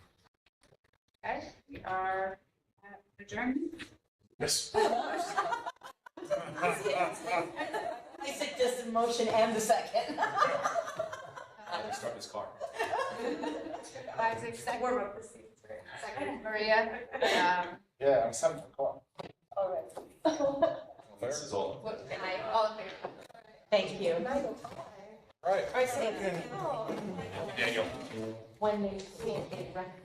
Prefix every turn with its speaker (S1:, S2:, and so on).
S1: We are uh, adjourned.
S2: Yes.
S3: I said just the motion and the second.
S1: Uh,
S2: Start this car.
S1: Isaac, second. Second, Maria. Um,
S2: Yeah, I'm seven o'clock.
S3: All right.
S2: This is all.
S1: what- and I, all in favor?
S3: Thank you.
S2: Right.
S3: All right, so
S2: Daniel.
S3: when they see it, they recognize